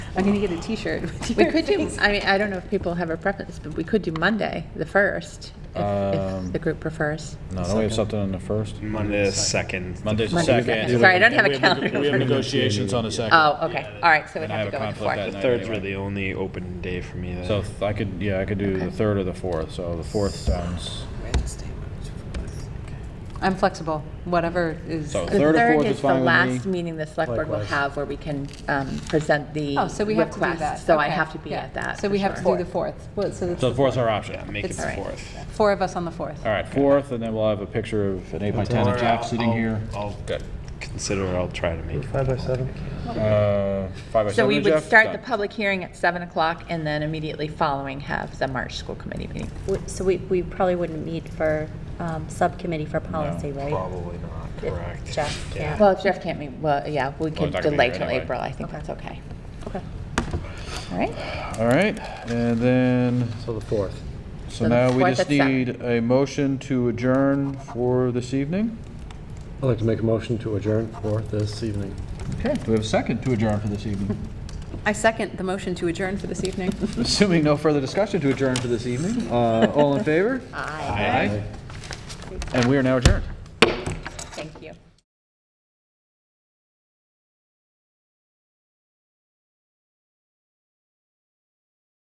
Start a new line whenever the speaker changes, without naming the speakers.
I'm gonna get a T-shirt with
We
your
could do,
face.
I mean, I don't know if people have a preference, but we could do Monday, the first, if, if
Um,
the group prefers.
No, don't we have something on the first?
Monday the second.
Monday the
Monday,
second.
second. Sorry, I don't
Then
have a
we
calendar.
We have negotiations on the second.
Oh, okay, all right, so we'd
And I
have to
have a
go with the fourth.
conflict that
The
night
third's
anyway.
really the only open day for me. Then.
So if I could, yeah, I could do
Okay.
the third or the fourth, so the fourth sounds,
I'm flexible, whatever is.
so
The
third or
third
fourth is
is the
fine with
last
me.
meeting the select board will
Likewise.
have where we can, um, present the
Oh, so we have to do
requests.
that.
So I
Okay,
have to be
yeah.
at that.
So we
for
have to
sure.
do the fourth. Well, So
So
it's
the fourth's our
yeah,
option.
make it
It's
the
alright.
fourth.
four of us on the fourth.
All right, fourth, and then we'll have a picture of an eight by ten of Jack sitting here.
I'll
Good.
consider. I'll try to make.
Five by seven.
Uh, Five by seven,
So we would
Jeff?
start the
Done.
public hearing at seven o'clock and then immediately following have the March school committee meeting.
W- So we, we probably wouldn't meet for um, subcommittee for policy, right?
Probably not.
If
Correct.
Jeff
Yeah.
can't.
Well, if Jeff can't meet, well, yeah, we
Well,
could
Oh, it's not gonna be
delay
here
till
anyway.
April, I think
Okay.
that's okay.
Okay.
All right,
All right, and then,
So the fourth.
so
So the
now we
fourth
just
at seven.
need a motion to adjourn for this evening.
I'd like to make a motion to adjourn for this evening.
Okay, do we have a second to adjourn for this evening?
I second the motion to adjourn for this evening.
Assuming no further discussion to adjourn for this evening, uh, all in favor? Aye. And we are now adjourned.